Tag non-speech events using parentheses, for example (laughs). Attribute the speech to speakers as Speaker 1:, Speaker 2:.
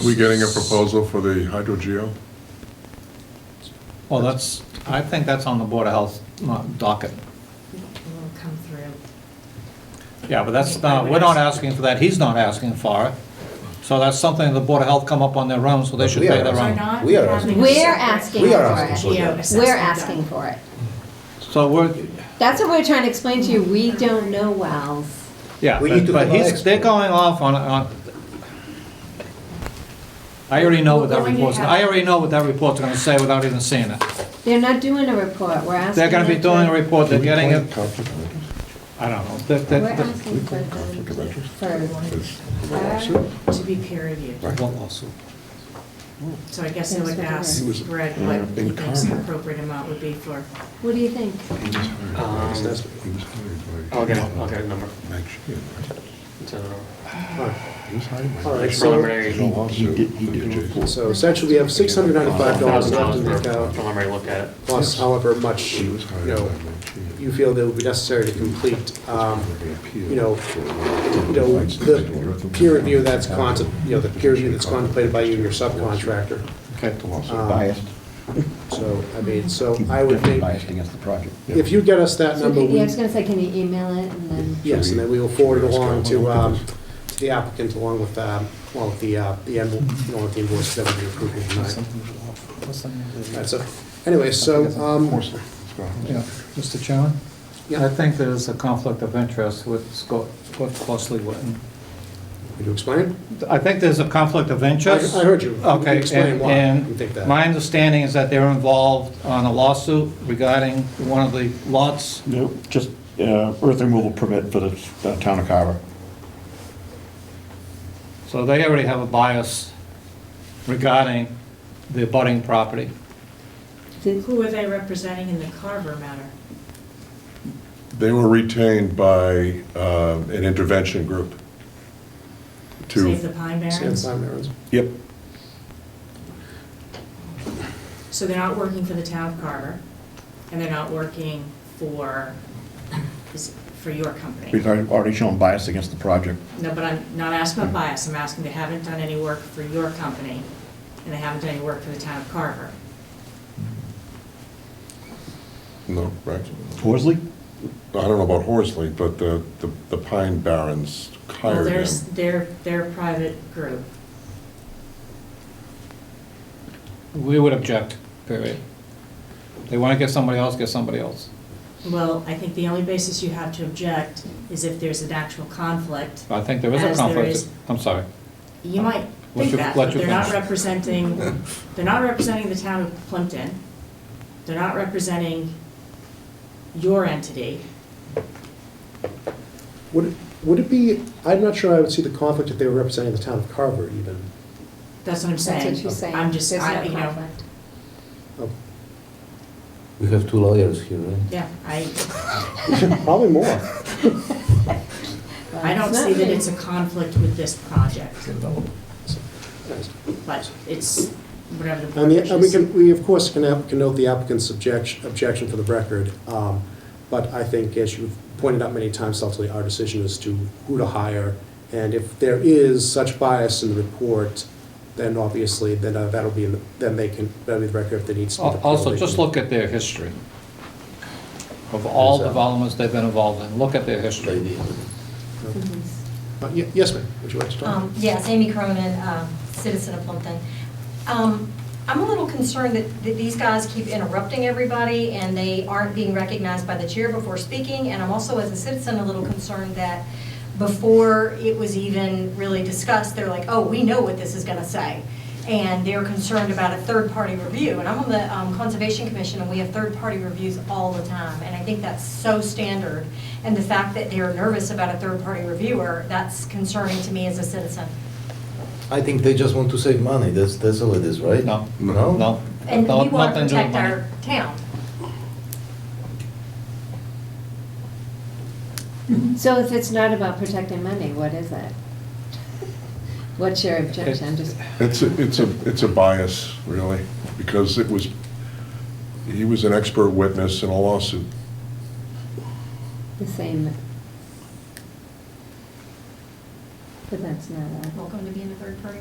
Speaker 1: Are we getting a proposal for the hydro geo?
Speaker 2: Well, that's, I think that's on the Board of Health uh, docket.
Speaker 3: It'll come through.
Speaker 2: Yeah, but that's not, we're not asking for that, he's not asking for it. So that's something the Board of Health come up on their own, so they should
Speaker 4: We are
Speaker 2: pay their
Speaker 4: asking.
Speaker 3: We're
Speaker 2: own.
Speaker 3: not
Speaker 4: We are
Speaker 3: having
Speaker 4: asking.
Speaker 3: a
Speaker 5: We're
Speaker 3: separate
Speaker 5: asking
Speaker 4: We are
Speaker 5: for
Speaker 4: asking
Speaker 5: it.
Speaker 4: for it.
Speaker 3: geo
Speaker 5: We're
Speaker 3: assessment
Speaker 5: asking
Speaker 3: done.
Speaker 5: for it.
Speaker 2: So we're,
Speaker 5: That's what we're trying to explain to you, we don't know wells.
Speaker 2: yeah,
Speaker 4: We need
Speaker 2: but
Speaker 4: to
Speaker 2: but
Speaker 4: provide
Speaker 2: he's, they're
Speaker 4: expert.
Speaker 2: going off on, on, I already know what that
Speaker 3: We're going to
Speaker 2: report's,
Speaker 3: have-
Speaker 2: I already know what that report's gonna say without even seeing it.
Speaker 5: They're not doing a report, we're asking.
Speaker 2: They're gonna be
Speaker 5: them
Speaker 2: doing a
Speaker 5: to-
Speaker 2: report, they're getting
Speaker 1: Can we
Speaker 2: it,
Speaker 1: claim conflict of interest?
Speaker 2: I don't know, they're,
Speaker 5: We're
Speaker 2: they're, they're-
Speaker 5: asking for them
Speaker 1: Conflict of interest?
Speaker 5: for,
Speaker 1: It's-
Speaker 3: Are To be peer reviewed.
Speaker 1: Right.
Speaker 2: What lawsuit?
Speaker 3: So I guess I would
Speaker 5: That's
Speaker 3: ask
Speaker 1: what it is.
Speaker 3: Greg
Speaker 1: Yeah,
Speaker 3: what he
Speaker 1: in
Speaker 3: thinks the
Speaker 1: karma.
Speaker 3: appropriate amount would be for,
Speaker 5: what do you think?
Speaker 1: He was hired by-
Speaker 4: Um,
Speaker 1: he was hired by-
Speaker 6: I'll get it, I'll get a number.
Speaker 1: Max Sheehan, right?
Speaker 6: It's, uh,
Speaker 1: He was hired by.
Speaker 6: All right,
Speaker 1: Max
Speaker 6: so-
Speaker 1: Sheehan.
Speaker 6: He-
Speaker 7: he did- he did
Speaker 1: Lawsuit.
Speaker 7: report.
Speaker 4: So essentially, we have six hundred ninety-five dollars
Speaker 6: Thousand
Speaker 4: left
Speaker 6: dollars
Speaker 4: in the
Speaker 6: for
Speaker 4: account,
Speaker 6: preliminary look at it.
Speaker 4: plus however much,
Speaker 1: He was
Speaker 4: you
Speaker 1: hired by
Speaker 4: know,
Speaker 1: Max Sheehan.
Speaker 4: you feel that would be necessary to complete, um, you know, you
Speaker 1: you
Speaker 4: know, the peer review that's contem, you know, the peer review that's contemplated by you and your subcontractor.
Speaker 2: Okay.
Speaker 4: Um,
Speaker 7: Biased,
Speaker 4: So, I mean, so I would
Speaker 7: definitely
Speaker 4: think,
Speaker 7: biased against the project.
Speaker 4: if you get us that
Speaker 5: So,
Speaker 4: number,
Speaker 5: Yeah, I
Speaker 4: we,
Speaker 5: was gonna say, can you email it and then?
Speaker 4: yes, and then we will forward it along to, um, to the applicant along with, um, along with the, uh, the envelope, along with the invoice that we're approving tonight. All right, so, anyway, so, um,
Speaker 2: Yeah, Mr. Chairman?
Speaker 4: Yeah.
Speaker 2: I think there's a conflict of interest with Scott Scott closely written.
Speaker 4: Would you explain?
Speaker 2: I think there's a conflict of interest.
Speaker 4: I- I heard you. You
Speaker 2: Okay.
Speaker 4: explained
Speaker 2: and-
Speaker 4: why
Speaker 2: and
Speaker 4: you think that.
Speaker 2: My understanding is that they're involved on a lawsuit regarding one of the lots.
Speaker 7: No, just uh, earth removal permit for the uh, town of Carver.
Speaker 2: So they already have a bias regarding the abutting property.
Speaker 5: Did-
Speaker 3: who are they representing in the Carver matter?
Speaker 1: They were retained by um, an intervention group
Speaker 3: Save the
Speaker 1: to,
Speaker 3: Pine
Speaker 4: Sam
Speaker 3: Barrens?
Speaker 4: Simon Aaron's.
Speaker 1: yep,
Speaker 3: So they're not working for the town of Carver, and they're not working for, is- for your company?
Speaker 7: We've already already shown bias against the project.
Speaker 3: No, but I'm not asking about bias, I'm asking they haven't done any work for your company, and they haven't done any work for the town of Carver.
Speaker 1: no, right?
Speaker 7: Horsley?
Speaker 1: I don't know about Horsley, but the, the- the Pine Barrens
Speaker 3: Well,
Speaker 1: hired
Speaker 3: they're,
Speaker 1: them.
Speaker 3: they're, they're a private group.
Speaker 2: We would object, period. They want to get somebody else, get somebody else.
Speaker 3: Well, I think the only basis you have to object is if there's an actual conflict.
Speaker 2: I think there is a
Speaker 3: As there
Speaker 2: conflict.
Speaker 3: is-
Speaker 2: I'm sorry.
Speaker 3: You might
Speaker 2: Uh, Let
Speaker 3: think
Speaker 2: you-
Speaker 3: that,
Speaker 2: let
Speaker 3: but
Speaker 2: you
Speaker 3: they're not
Speaker 2: finish.
Speaker 3: representing, they're not representing the town of Plimpton. They're not representing your entity.
Speaker 4: Would, it- would it be, I'm not sure I would see the conflict if they were representing the town of Carver even.
Speaker 3: That's what I'm
Speaker 5: That's
Speaker 3: saying.
Speaker 5: what she's saying.
Speaker 3: I'm just,
Speaker 5: There's
Speaker 3: I,
Speaker 5: no
Speaker 3: you know,
Speaker 5: conflict.
Speaker 4: Oh,
Speaker 8: We have two lawyers here, right?
Speaker 3: yeah, I,
Speaker 2: (laughs)
Speaker 4: Probably
Speaker 5: (laughs)
Speaker 4: more.
Speaker 3: I don't see that it's a conflict with this project, but it's whatever the
Speaker 4: And
Speaker 3: board
Speaker 4: the, and we
Speaker 3: wishes.
Speaker 4: can, we of course can, have- can note the applicant's objection, objection for the record. um, But I think as you've pointed out many times, ultimately, our decision is to who to hire. And if there is such bias in the report, then obviously, then uh, that'll be, in the- then they can, that'll be the record if there needs to be.
Speaker 2: Al- Also, just look at their history of all
Speaker 8: Yes, sir.
Speaker 2: developments they've been involved in. Look at their history.
Speaker 5: Mm-hmm.
Speaker 4: Uh, ye- Yes, ma'am, would you like to talk?
Speaker 9: Um, Yes, Amy Cronin, um, citizen of Plumpton. Um, I'm a little concerned that that these guys keep interrupting everybody, and they aren't being recognized by the chair before speaking, and I'm also, as a citizen, a little concerned that before it was even really discussed, they're like, oh, we know what this is going to say, and they're concerned about a third-party review, and I'm on the um, Conservation Commission, and we have third-party reviews all the time, and I think that's so standard, and the fact that they're nervous about a third-party reviewer, that's concerning to me as a citizen.
Speaker 8: I think they just want to save money, that's, that's all it is, right?
Speaker 2: No.
Speaker 8: No?
Speaker 2: No?
Speaker 9: And
Speaker 2: No,
Speaker 9: we want to
Speaker 2: nothing do with
Speaker 9: protect
Speaker 2: money.
Speaker 9: our town.
Speaker 5: So if it's not about protecting money, what is it? What's your objection? Just,
Speaker 1: It's, a- it's a, it's a bias, really, because it was, he was an expert witness in a lawsuit.
Speaker 5: the same. But that's not a.
Speaker 9: Welcome to being a third party